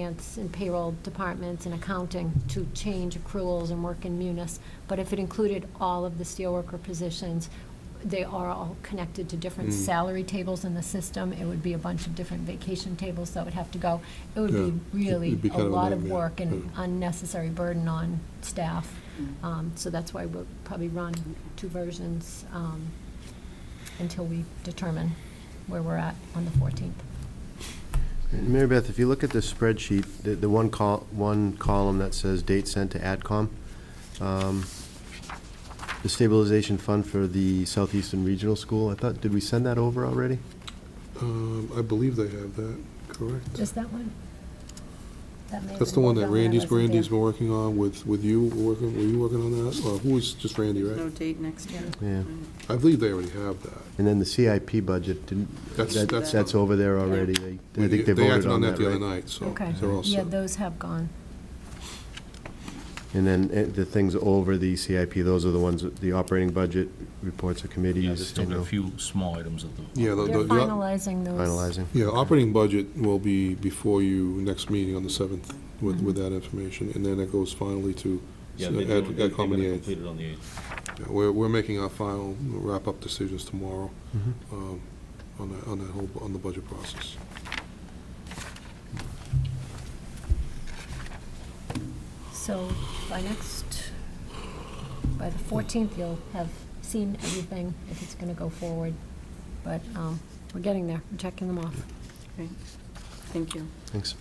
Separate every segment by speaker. Speaker 1: finance and payroll departments and accounting to change accruals and work in munis. But if it included all of the steelworker positions, they are all connected to different
Speaker 2: Mm.
Speaker 1: salary tables in the system. It would be a bunch of different vacation tables that would have to go. It would
Speaker 2: Yeah,
Speaker 1: be really
Speaker 2: it'd be
Speaker 1: a
Speaker 2: kind of a
Speaker 1: lot of
Speaker 2: nightmare,
Speaker 1: work and
Speaker 2: yeah.
Speaker 1: unnecessary burden on staff. Um, So that's why we'll probably run two versions um, until we determine where we're at on the 14th.
Speaker 3: Mary Beth, if you look at the spreadsheet, the, the one col, one column that says date sent to AdCom, um, the stabilization fund for the Southeastern Regional School, I thought, did we send that over already?
Speaker 2: Um, I believe they have that, correct?
Speaker 1: Just that one? That may have
Speaker 2: That's the
Speaker 1: been
Speaker 2: one that
Speaker 1: done when I
Speaker 2: Randy's,
Speaker 1: wasn't there.
Speaker 2: Randy's been working on with, with you, working, were you working on that? Or who was, just Randy,
Speaker 4: There's no
Speaker 2: right?
Speaker 4: date next year.
Speaker 3: Yeah.
Speaker 2: I believe they already have that.
Speaker 3: And then the CIP budget, didn't,
Speaker 2: That's-
Speaker 3: that,
Speaker 4: that's-
Speaker 3: that's over there already. They, I think they
Speaker 2: acted
Speaker 3: voted on that,
Speaker 2: the other
Speaker 3: right?
Speaker 2: night, so
Speaker 1: Okay,
Speaker 2: oh, they're all
Speaker 1: yeah,
Speaker 2: set.
Speaker 1: those have gone.
Speaker 3: And then eh, the things over the CIP, those are the ones, that- the operating budget, reports of
Speaker 5: Yeah, there's
Speaker 3: committees, you
Speaker 5: still a
Speaker 3: know,
Speaker 5: few small items at the.
Speaker 2: Yeah, the-
Speaker 1: They're
Speaker 2: the- the-
Speaker 1: finalizing those.
Speaker 3: finalizing.
Speaker 2: yeah, operating budget will be before you next meeting on the 7th with,
Speaker 1: Mm-hmm.
Speaker 2: with that information, and then it goes finally to
Speaker 5: Yeah, they- they-
Speaker 2: Ed-
Speaker 5: they're
Speaker 2: Ed
Speaker 5: gonna
Speaker 2: Common the 8th.
Speaker 5: complete it on the 8th.
Speaker 2: Yeah, We're, we're making our final wrap-up decisions tomorrow
Speaker 3: Mhm.
Speaker 2: um, on that, on that whole, on the budget process.
Speaker 1: So by next, by the 14th, you'll have seen everything if it's going to go forward. But um, we're getting there, we're checking them off.
Speaker 4: Great. Thank you.
Speaker 3: Thanks.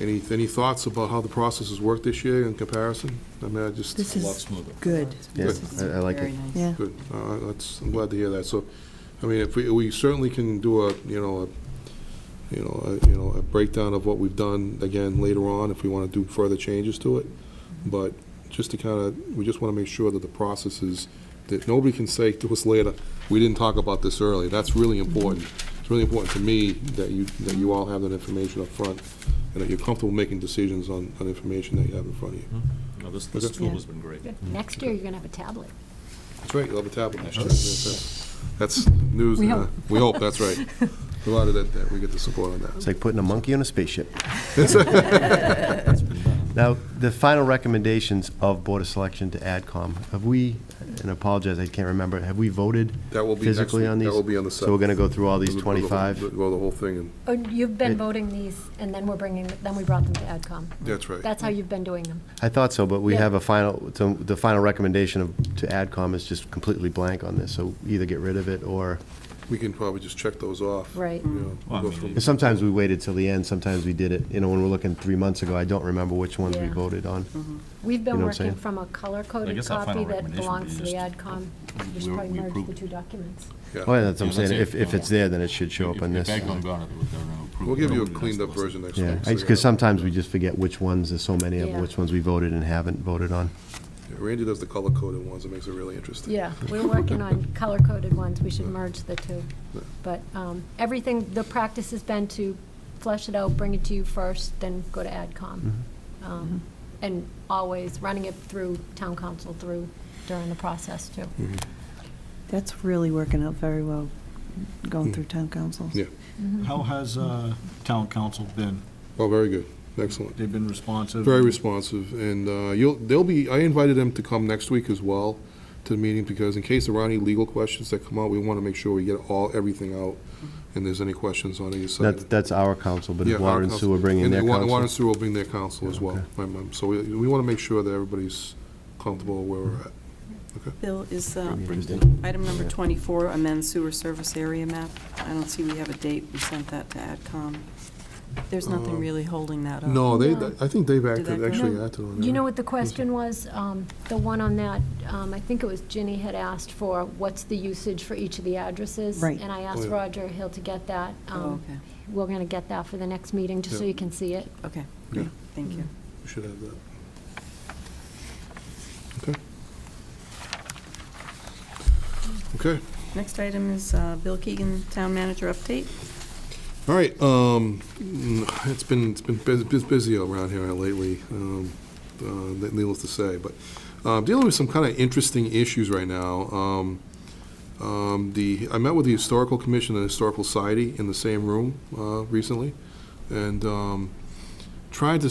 Speaker 2: Any, any thoughts about how the process has worked this year in comparison? I mean, I just,
Speaker 6: This
Speaker 5: A lot
Speaker 6: is
Speaker 5: smoother.
Speaker 6: good,
Speaker 3: Yeah,
Speaker 2: Good.
Speaker 3: I I like
Speaker 4: Very
Speaker 3: it.
Speaker 4: nice.
Speaker 6: yeah.
Speaker 2: good, All right, that's, I'm glad to hear that. So, I mean, if we, we certainly can do a, you know, a, you know, a, you know, a breakdown of what we've done again later on if we want to do further changes to it. But just to kind of, we just want to make sure that the process is, that nobody can say to us later, we didn't talk about this early. That's really important. It's really important to me that you, that you all have that information up front and that you're comfortable making decisions on, on information that you have in front of you.
Speaker 5: No, this, this
Speaker 2: Okay.
Speaker 5: tool
Speaker 6: Yeah.
Speaker 5: has been great.
Speaker 3: Mm-hmm.
Speaker 1: Next year, you're going to have a tablet.
Speaker 2: That's right, you'll have a tablet next year. That's- That's news,
Speaker 1: We
Speaker 2: uh,
Speaker 1: hope.
Speaker 2: we hope, that's right. Provided that, that we get the support on
Speaker 3: It's
Speaker 2: that.
Speaker 3: like putting a monkey on a spaceship. Now, the final recommendations of Board of Selection to AdCom, have we, and I apologize, I can't remember, have we voted
Speaker 2: That will be next
Speaker 3: physically
Speaker 2: week.
Speaker 3: on
Speaker 2: That
Speaker 3: these?
Speaker 2: will be on the
Speaker 3: So we're going to go through all these
Speaker 2: We'll go the whole-
Speaker 3: 25?
Speaker 2: Well, the whole thing, and,
Speaker 1: Oh, you've been
Speaker 3: Right.
Speaker 1: voting these, and then we're bringing, then we brought them to AdCom.
Speaker 2: that's right.
Speaker 1: That's how you've been doing them.
Speaker 3: I thought so, but we
Speaker 1: Yeah.
Speaker 3: have a final, so the final recommendation of- to AdCom is just completely blank on this, so either get rid of it or,
Speaker 2: We can probably just check those off.
Speaker 1: Right.
Speaker 2: you know,
Speaker 5: Well, I
Speaker 2: go
Speaker 5: mean,
Speaker 2: from-
Speaker 3: and sometimes we waited till the end, sometimes we did it, you know, when we're looking three months ago, I don't remember which ones we
Speaker 1: Yeah.
Speaker 3: voted on.
Speaker 1: We've been
Speaker 3: You know what I'm
Speaker 1: working
Speaker 3: saying?
Speaker 1: from a color-coded
Speaker 5: guess our final
Speaker 1: copy that
Speaker 5: recommendation would
Speaker 1: belongs to the
Speaker 5: be just-
Speaker 1: AdCom. We should
Speaker 5: we-
Speaker 1: probably
Speaker 5: we
Speaker 1: merge the
Speaker 5: approved.
Speaker 1: two documents.
Speaker 2: yeah.
Speaker 3: Oh, yeah, that's what I'm
Speaker 5: Yeah, that's
Speaker 3: saying,
Speaker 5: it.
Speaker 3: if, if it's there, then it should show
Speaker 5: If-
Speaker 3: up on
Speaker 5: if
Speaker 3: this.
Speaker 5: Ed gone gone, it would- they're gonna approve
Speaker 2: We'll
Speaker 5: it.
Speaker 2: give you a
Speaker 5: Nobody has
Speaker 2: cleaned
Speaker 5: to
Speaker 2: up
Speaker 5: listen.
Speaker 2: version next
Speaker 3: Yeah,
Speaker 2: week. so you
Speaker 3: because
Speaker 2: have-
Speaker 3: sometimes we just forget which ones, there's so many of
Speaker 1: Yeah.
Speaker 3: them, which ones we voted and haven't voted on.
Speaker 2: yeah, Randy does the color-coded ones, it makes it really interesting.
Speaker 1: Yeah, we're working on color-coded ones, we should merge the two. But um, everything, the practice has been to flesh it out, bring it to you first, then go to AdCom.
Speaker 2: Mm-hmm.
Speaker 1: Um,
Speaker 4: Mm-hmm.
Speaker 1: And always running it through town council through during the process, too.
Speaker 6: That's really working out very well, going through town council.
Speaker 2: Yeah,
Speaker 7: How has uh, town council been?
Speaker 2: well, Oh, very good, excellent.
Speaker 7: They've been responsive?
Speaker 2: Very responsive, and uh, you'll, they'll be, I invited them to come next week as well to the meeting, because in case there are any legal questions that come out, we want to make sure we get all, everything out, and there's any questions on either side.
Speaker 3: That's, that's our council, but
Speaker 2: Yeah,
Speaker 3: if water
Speaker 2: our
Speaker 3: and
Speaker 2: council-
Speaker 3: sewer bring in their
Speaker 2: And wa- water and
Speaker 3: council.
Speaker 2: sewer will bring their counsel as
Speaker 3: Yeah,
Speaker 2: well.
Speaker 3: okay.
Speaker 2: My mom- So we, we want to make sure that everybody's comfortable where we're at.
Speaker 4: Bill, is uh,
Speaker 3: Interesting.
Speaker 4: item number
Speaker 3: Yeah.
Speaker 4: 24, amend sewer service area map? I don't see we have a date. We sent that to AdCom. There's nothing
Speaker 3: Uh,
Speaker 2: Um,
Speaker 4: really holding
Speaker 1: Oh.
Speaker 4: that up.
Speaker 2: No, they,
Speaker 1: No.
Speaker 2: I think they've
Speaker 4: that
Speaker 2: acted,
Speaker 4: go?
Speaker 2: actually
Speaker 1: No.
Speaker 2: acted on that.
Speaker 1: You know what the question was? Um, The one on that, um, I think it was Ginny had asked for, what's the usage for each of the addresses?
Speaker 6: Right.
Speaker 1: And I asked
Speaker 2: Oh, yeah.
Speaker 1: Roger Hill to get that.
Speaker 4: Oh,
Speaker 1: Um,
Speaker 4: okay,
Speaker 1: We're going to get that for the next meeting, just so
Speaker 2: Yeah.
Speaker 1: you can see it.
Speaker 4: okay, great, thank you.
Speaker 2: We Should have that. Okay. Okay.
Speaker 4: Next item is uh, Bill Keegan, Town Manager Update.
Speaker 2: All right, um, mm, it's been, it's been bus- bus- busy around here lately, um, uh, needless to say, but, uh, dealing with some kind of interesting issues right now. Um, um, the, I met with the Historical Commission and Historical Society in the same room, uh, recently, and, um, tried to